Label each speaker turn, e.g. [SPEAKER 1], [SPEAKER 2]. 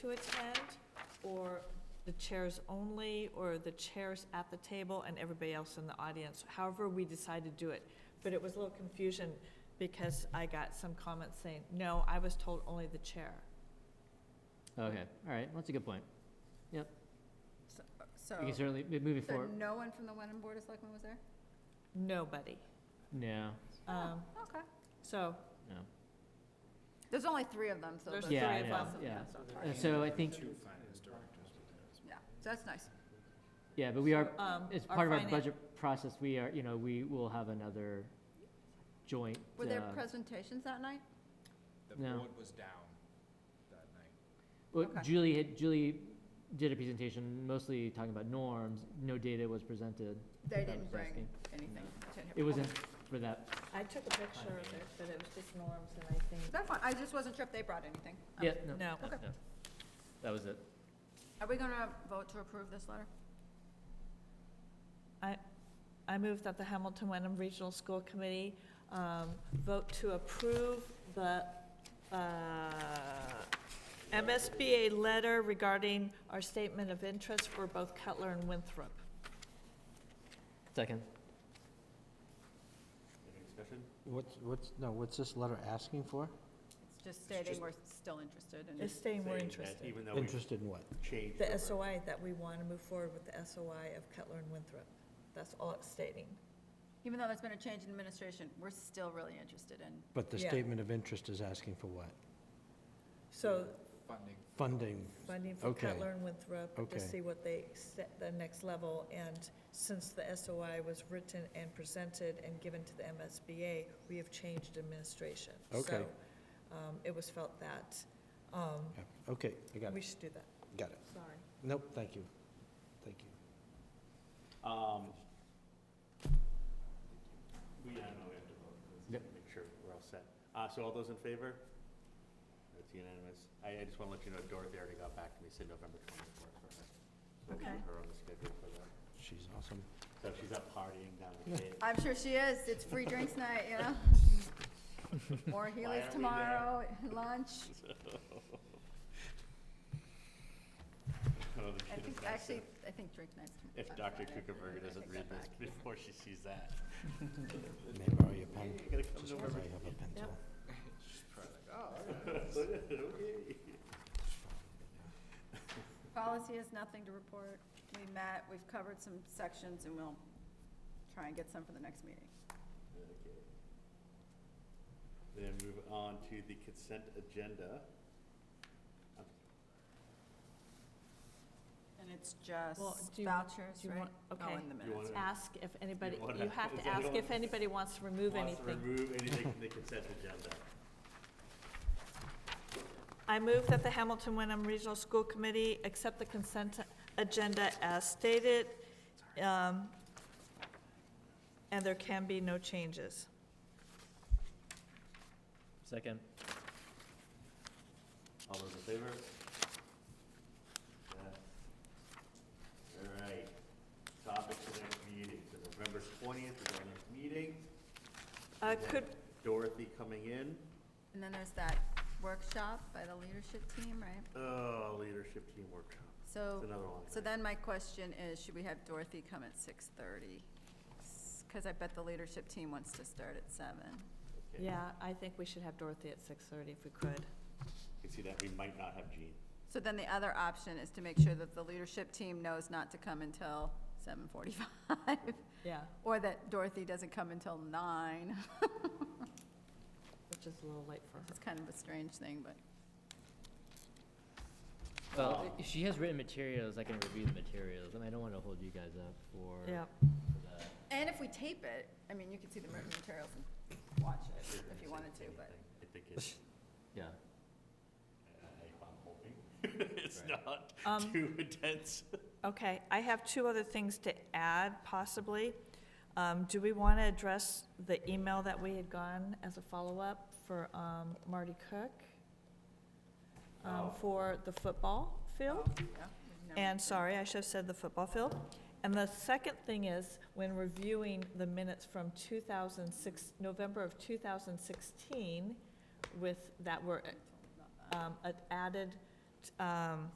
[SPEAKER 1] to attend, or the chairs only, or the chairs at the table and everybody else in the audience, however we decide to do it. But it was a little confusion because I got some comments saying, no, I was told only the chair.
[SPEAKER 2] Okay, all right, that's a good point.
[SPEAKER 3] So,
[SPEAKER 2] We can certainly, mo- moving
[SPEAKER 3] so
[SPEAKER 2] forward,
[SPEAKER 3] no one from the Wenham Board of Selectmen was there?
[SPEAKER 1] Nobody.
[SPEAKER 2] no,
[SPEAKER 1] Um,
[SPEAKER 3] Okay.
[SPEAKER 1] So,
[SPEAKER 2] no.
[SPEAKER 3] There's only three of them, so.
[SPEAKER 1] There's
[SPEAKER 3] that's-
[SPEAKER 2] Yeah, I
[SPEAKER 1] three of
[SPEAKER 2] know,
[SPEAKER 1] us.
[SPEAKER 2] yeah.
[SPEAKER 3] that's not
[SPEAKER 2] Uh,
[SPEAKER 3] hard.
[SPEAKER 2] So I think,
[SPEAKER 3] Yeah, so that's nice.
[SPEAKER 2] yeah, but we are,
[SPEAKER 1] um,
[SPEAKER 2] as
[SPEAKER 1] our
[SPEAKER 2] part of our
[SPEAKER 1] finan-
[SPEAKER 2] budget process, we are, you know, we will have another joint.
[SPEAKER 3] Were there
[SPEAKER 2] uh,
[SPEAKER 3] presentations that night?
[SPEAKER 4] The
[SPEAKER 2] No.
[SPEAKER 4] board was down that night.
[SPEAKER 2] Well,
[SPEAKER 3] Okay.
[SPEAKER 2] Julie had, Julie did a presentation mostly talking about norms, no data was presented.
[SPEAKER 3] They
[SPEAKER 2] That was
[SPEAKER 3] didn't bring
[SPEAKER 2] asking.
[SPEAKER 3] anything.
[SPEAKER 2] It wasn't for that,
[SPEAKER 1] I took a picture of it, but it was just norms and I think,
[SPEAKER 3] That's fine, I just wasn't sure if they brought anything. Um,
[SPEAKER 2] yeah, no,
[SPEAKER 1] no.
[SPEAKER 2] no, that was it.
[SPEAKER 3] Are we gonna vote to approve this letter?
[SPEAKER 1] I move that the Hamilton Wenham Regional School Committee um, vote to approve the uh, MSBA letter regarding our statement of interest for both Cutler and Winthrop.
[SPEAKER 2] Second.
[SPEAKER 5] What's, what's, no, what's this letter asking for?
[SPEAKER 3] It's just stating we're still interested in
[SPEAKER 1] It's
[SPEAKER 3] it.
[SPEAKER 1] staying more interested.
[SPEAKER 6] Even though we
[SPEAKER 5] Interested in what?
[SPEAKER 6] changed.
[SPEAKER 1] The SOI, that we want to move forward with the SOI of Cutler and Winthrop. That's all it's stating.
[SPEAKER 3] Even though there's been a change in administration, we're still really interested in,
[SPEAKER 5] But the
[SPEAKER 1] Yeah.
[SPEAKER 5] statement of interest is asking for what?
[SPEAKER 1] So
[SPEAKER 4] Funding
[SPEAKER 5] Funding.
[SPEAKER 1] funding for
[SPEAKER 5] Okay.
[SPEAKER 1] Cutler and Winthrop to
[SPEAKER 5] Okay.
[SPEAKER 1] see what they, set the next level. And since the SOI was written and presented and given to the MSBA, we have changed administration.
[SPEAKER 5] Okay.
[SPEAKER 1] So um, it was felt that um,
[SPEAKER 5] Yeah, Okay, I got
[SPEAKER 1] we
[SPEAKER 5] it,
[SPEAKER 1] should do that.
[SPEAKER 5] got it.
[SPEAKER 1] Sorry.
[SPEAKER 5] Nope, thank you, thank you.
[SPEAKER 6] Um, We, I don't know, we have to vote, let's make sure we're all set. Uh, so all those in favor? That's unanimous. I, I just wanna let you know Dorothy already got back to me, said November twenty-fourth for her. So we'll
[SPEAKER 1] Okay.
[SPEAKER 6] keep her on the schedule for that.
[SPEAKER 5] She's awesome.
[SPEAKER 6] So she's up partying down with Dave.
[SPEAKER 3] I'm sure she is, it's free drinks night, you know? Or Healy's
[SPEAKER 6] aren't we there?
[SPEAKER 3] tomorrow, lunch.
[SPEAKER 6] I don't
[SPEAKER 3] I
[SPEAKER 6] she
[SPEAKER 3] think,
[SPEAKER 6] does that, so
[SPEAKER 3] actually, I think drink night's.
[SPEAKER 6] If
[SPEAKER 3] on
[SPEAKER 6] Dr.
[SPEAKER 3] Friday. I
[SPEAKER 6] Kuchenberger doesn't
[SPEAKER 3] take
[SPEAKER 6] read
[SPEAKER 3] that
[SPEAKER 6] this
[SPEAKER 3] back.
[SPEAKER 6] before she sees that.
[SPEAKER 5] May I borrow your pen?
[SPEAKER 6] You gotta come
[SPEAKER 5] Just
[SPEAKER 6] to
[SPEAKER 5] 'cause I have a pencil.
[SPEAKER 6] Okay.
[SPEAKER 3] Policy has nothing to report. We met, we've covered some sections, and we'll try and get some for the next meeting.
[SPEAKER 6] Okay. Then move on to the consent agenda.
[SPEAKER 3] And it's just
[SPEAKER 1] Well, do you-
[SPEAKER 3] vouchers,
[SPEAKER 1] do you
[SPEAKER 3] right?
[SPEAKER 1] want-
[SPEAKER 3] Oh,
[SPEAKER 1] okay.
[SPEAKER 3] in the
[SPEAKER 6] You
[SPEAKER 3] minutes.
[SPEAKER 6] wanna-
[SPEAKER 1] Ask if anybody,
[SPEAKER 6] You wanna-
[SPEAKER 1] you have
[SPEAKER 6] is
[SPEAKER 1] to ask if
[SPEAKER 6] anyone
[SPEAKER 1] anybody wants to remove
[SPEAKER 6] Wants to
[SPEAKER 1] anything.
[SPEAKER 6] remove anything from the consent agenda.
[SPEAKER 1] I move that the Hamilton Wenham Regional School Committee accept the consent agenda as stated, um, and there can be no changes.
[SPEAKER 2] Second.
[SPEAKER 6] All those in favor? Yes. All right. Topic for the next meeting, so November twentieth is our next meeting.
[SPEAKER 1] Uh,
[SPEAKER 6] We have
[SPEAKER 1] Could,
[SPEAKER 6] Dorothy coming in.
[SPEAKER 3] And then there's that workshop by the leadership team, right?
[SPEAKER 6] Oh, leadership team workshop.
[SPEAKER 3] So,
[SPEAKER 6] That's another one.
[SPEAKER 3] Oh, so then my question is, should we have Dorothy come at six thirty? Because I bet the leadership team wants to start at seven.
[SPEAKER 6] Okay.
[SPEAKER 1] yeah, I think we should have Dorothy at 6:30 if we could.
[SPEAKER 6] You see that, we might not have Jean.
[SPEAKER 3] So then the other option is to make sure that the leadership team knows not to come until seven forty-five,
[SPEAKER 1] Yeah,
[SPEAKER 3] or that Dorothy doesn't come until nine.
[SPEAKER 1] which is a little late for her.
[SPEAKER 3] It's kind of a strange thing, but
[SPEAKER 2] Well,
[SPEAKER 6] Um,
[SPEAKER 2] if she has written materials, I can review the materials, and I don't wanna hold you guys up for
[SPEAKER 1] Yeah.
[SPEAKER 2] for that.
[SPEAKER 3] and if we tape it, I mean, you could see the written materials and watch it if you wanted to, but
[SPEAKER 6] I think it's,
[SPEAKER 2] Yeah.
[SPEAKER 6] I- I'm hoping it's not
[SPEAKER 1] Um,
[SPEAKER 6] too intense.
[SPEAKER 1] Okay, I have two other things to add possibly. Um, Do we want to address the email that we had gone as a follow-up for um, Marty Cook? um,
[SPEAKER 6] Oh.
[SPEAKER 1] For the football field?
[SPEAKER 3] yeah. we've never-
[SPEAKER 1] And sorry, I should have said the football field. And the second thing is, when reviewing the minutes from 2006, November of 2016, with, that were um, a- added um,